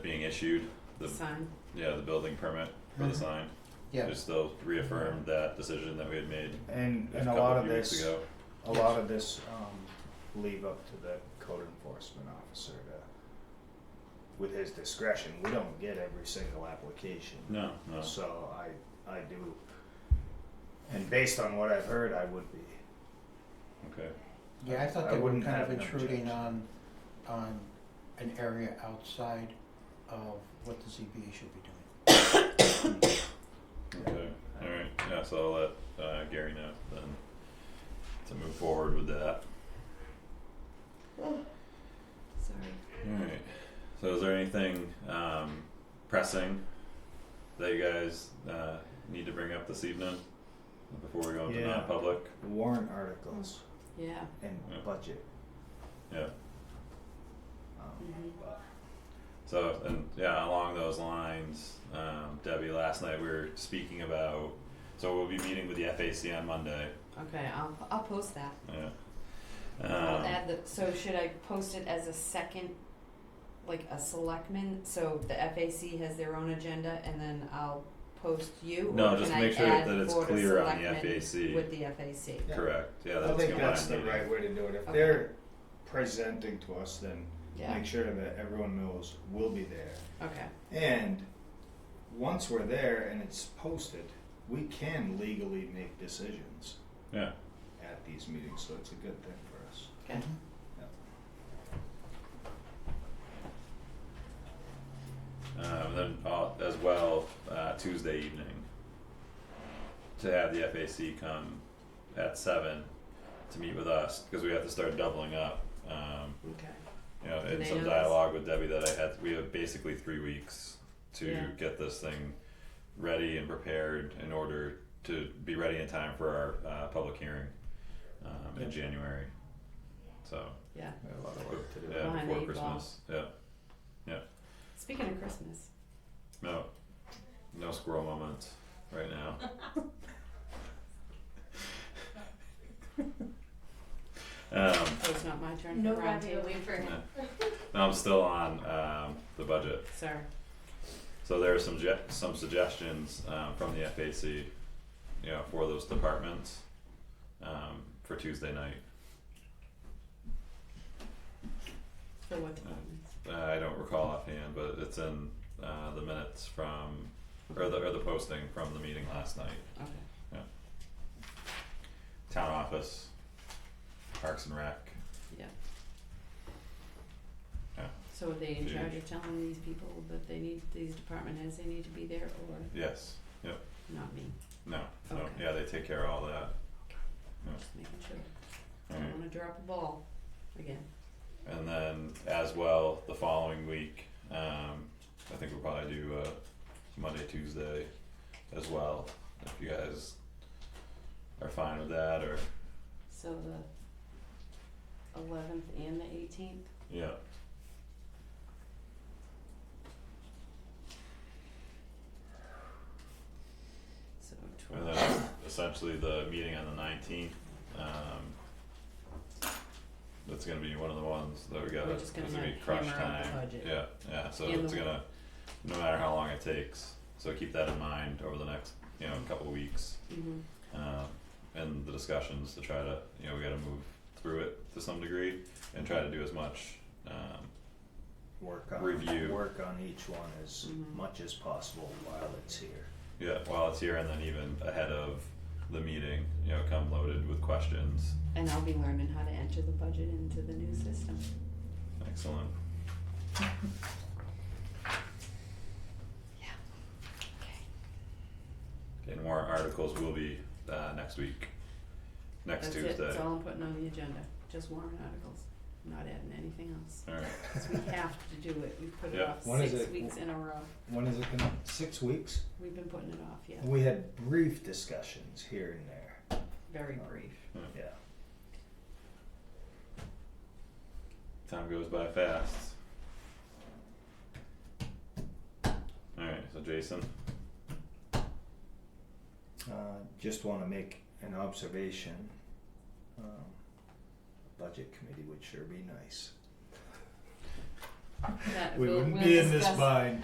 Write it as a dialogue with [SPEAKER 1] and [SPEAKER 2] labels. [SPEAKER 1] issued, the,
[SPEAKER 2] sign.
[SPEAKER 1] yeah, the building permit for the sign.
[SPEAKER 3] Yeah.
[SPEAKER 1] Just they'll reaffirm that decision that we had made
[SPEAKER 4] And,
[SPEAKER 1] a
[SPEAKER 4] and a
[SPEAKER 1] couple
[SPEAKER 4] lot of
[SPEAKER 1] few weeks
[SPEAKER 4] this,
[SPEAKER 1] ago.
[SPEAKER 4] a lot of this, um, leave up to the code enforcement officer to, with his discretion, we don't get every single application.
[SPEAKER 1] No, no,
[SPEAKER 4] So I, I do, and based on what I've heard, I would be,
[SPEAKER 1] okay,
[SPEAKER 3] Yeah, I thought
[SPEAKER 4] I
[SPEAKER 3] they were
[SPEAKER 4] wouldn't
[SPEAKER 3] kind of
[SPEAKER 4] have an
[SPEAKER 3] intruding on,
[SPEAKER 4] objection.
[SPEAKER 3] on an area outside of what the ZBA should be doing.
[SPEAKER 1] okay,
[SPEAKER 4] uh,
[SPEAKER 1] alright, yeah, so I'll let uh Gary know then to move forward with that.
[SPEAKER 2] Sorry.
[SPEAKER 1] Alright, so is there anything um pressing that you guys uh need to bring up this evening before we go into
[SPEAKER 4] Yeah.
[SPEAKER 1] non-public?
[SPEAKER 4] warrant articles
[SPEAKER 2] Yeah.
[SPEAKER 4] and
[SPEAKER 1] Yeah.
[SPEAKER 4] budget.
[SPEAKER 1] Yeah.
[SPEAKER 4] Um,
[SPEAKER 2] Mm-hmm.
[SPEAKER 4] but
[SPEAKER 1] So and yeah, along those lines, um, Debbie, last night we were speaking about. So we'll be meeting with the FAC on Monday.
[SPEAKER 2] Okay, I'll I'll post that.
[SPEAKER 1] Yeah.
[SPEAKER 2] I'll
[SPEAKER 1] Um,
[SPEAKER 2] add the. So should I post it as a second, like a selectman? So the FAC has their own agenda, and then I'll post you.
[SPEAKER 1] no,
[SPEAKER 2] or
[SPEAKER 1] just
[SPEAKER 2] can
[SPEAKER 1] make
[SPEAKER 2] I
[SPEAKER 1] sure
[SPEAKER 2] add
[SPEAKER 1] that it's
[SPEAKER 2] Board of
[SPEAKER 1] clear on the
[SPEAKER 2] Selectmen
[SPEAKER 1] FAC.
[SPEAKER 2] With the FAC.
[SPEAKER 4] Yeah.
[SPEAKER 1] Correct. Yeah, that's
[SPEAKER 4] I think
[SPEAKER 1] combined
[SPEAKER 4] that's the
[SPEAKER 1] meeting.
[SPEAKER 4] right way to do it. If
[SPEAKER 2] Okay.
[SPEAKER 4] they're presenting to us, then
[SPEAKER 2] Yeah.
[SPEAKER 4] make sure that everyone knows we'll be there.
[SPEAKER 2] Okay.
[SPEAKER 4] And once we're there and it's posted, we can legally make decisions
[SPEAKER 1] Yeah.
[SPEAKER 4] at these meetings, so it's a good thing for us.
[SPEAKER 2] Okay.
[SPEAKER 3] Mm-hmm.
[SPEAKER 1] Um, and then uh, as well uh, Tuesday evening to have the FAC come at seven to meet with us because we have to start doubling up. Um,
[SPEAKER 2] Okay.
[SPEAKER 1] you know,
[SPEAKER 2] Do
[SPEAKER 1] in
[SPEAKER 2] they
[SPEAKER 1] some
[SPEAKER 2] know this?
[SPEAKER 1] dialogue with Debbie that I had, we have basically three weeks to
[SPEAKER 2] Yeah.
[SPEAKER 1] get this thing ready and prepared in order to be ready in time for our uh, public hearing um, in January. So
[SPEAKER 2] Yeah.
[SPEAKER 4] We have a lot of work to do.
[SPEAKER 1] yeah,
[SPEAKER 2] Behind the
[SPEAKER 1] before
[SPEAKER 2] eight ball.
[SPEAKER 1] Christmas. Yeah,
[SPEAKER 2] Speaking of Christmas,
[SPEAKER 1] no, no squirrel moments right now. um,
[SPEAKER 2] oh, it's not my turn.
[SPEAKER 5] No
[SPEAKER 2] Round
[SPEAKER 5] ravioli
[SPEAKER 2] table.
[SPEAKER 5] for him.
[SPEAKER 1] no, I'm still on um, the budget.
[SPEAKER 2] Sorry.
[SPEAKER 1] So there are some ge- some suggestions um from the FAC, you know, for those departments um for Tuesday night.
[SPEAKER 2] For what departments?
[SPEAKER 1] Uh, I don't recall offhand, but it's in uh the minutes from or the or the posting from the meeting last night.
[SPEAKER 2] Okay.
[SPEAKER 1] Town office, Parks and Rec.
[SPEAKER 2] Yeah.
[SPEAKER 1] Yeah.
[SPEAKER 2] So are they in
[SPEAKER 1] Huge.
[SPEAKER 2] charge of telling these people that they need, these department heads, they need to be there, or
[SPEAKER 1] Yes. Yep.
[SPEAKER 2] not me?
[SPEAKER 1] No. No.
[SPEAKER 2] Okay.
[SPEAKER 1] Yeah, they take care of all that.
[SPEAKER 2] Just making sure, I
[SPEAKER 1] Alright.
[SPEAKER 2] don't wanna drop a ball again.
[SPEAKER 1] And then as well, the following week, um, I think we'll probably do uh, Monday, Tuesday as well, if you guys are fine with that or,
[SPEAKER 2] So the eleventh and the eighteenth,
[SPEAKER 1] yeah.
[SPEAKER 2] so
[SPEAKER 1] And
[SPEAKER 2] twelve,
[SPEAKER 1] then essentially the meeting on the nineteenth, um, that's gonna be one of the ones that we gotta,
[SPEAKER 2] We're
[SPEAKER 1] it's
[SPEAKER 2] just gonna,
[SPEAKER 1] gonna be
[SPEAKER 2] like,
[SPEAKER 1] crunch
[SPEAKER 2] hammer out the
[SPEAKER 1] time,
[SPEAKER 2] budget.
[SPEAKER 1] yeah, yeah, so
[SPEAKER 2] And the
[SPEAKER 1] it's
[SPEAKER 2] wa-
[SPEAKER 1] gonna, no matter how long it takes, so keep that in mind over the next, you know, couple of weeks.
[SPEAKER 2] mm-hmm,
[SPEAKER 1] um, and the discussions to try to you know we got to move through it to some degree and try to do as much. Um,
[SPEAKER 4] Work on,
[SPEAKER 1] Review.
[SPEAKER 4] work on each one as
[SPEAKER 2] Mhm.
[SPEAKER 4] much as possible while it's here.
[SPEAKER 1] yeah, while it's here, and then even ahead of the meeting, you know, come loaded with questions.
[SPEAKER 2] and I'll be learning how to enter the budget into the new system.
[SPEAKER 1] Excellent.
[SPEAKER 2] Yeah. Okay,
[SPEAKER 1] And warrant articles will be uh, next week, next
[SPEAKER 2] that's
[SPEAKER 1] Tuesday.
[SPEAKER 2] it, that's all I'm putting on the agenda, just warrant articles, I'm not adding anything else,
[SPEAKER 1] All right.
[SPEAKER 2] 'Cause we have to do it, we've put it
[SPEAKER 1] Yeah.
[SPEAKER 2] off
[SPEAKER 4] When is
[SPEAKER 2] six
[SPEAKER 4] it?
[SPEAKER 2] weeks in a row,
[SPEAKER 4] When is it gonna, six weeks?
[SPEAKER 2] we've been putting it off, yeah,
[SPEAKER 4] We had brief discussions here and there,
[SPEAKER 2] very brief.
[SPEAKER 4] yeah.
[SPEAKER 1] Time goes by fast. All right. So Jason.
[SPEAKER 4] Uh, just wanna make an observation. Um, Budget committee would sure be nice.
[SPEAKER 2] That
[SPEAKER 4] We
[SPEAKER 2] we'll-
[SPEAKER 4] wouldn't
[SPEAKER 2] we'll
[SPEAKER 4] be in this
[SPEAKER 2] discuss-
[SPEAKER 4] bind.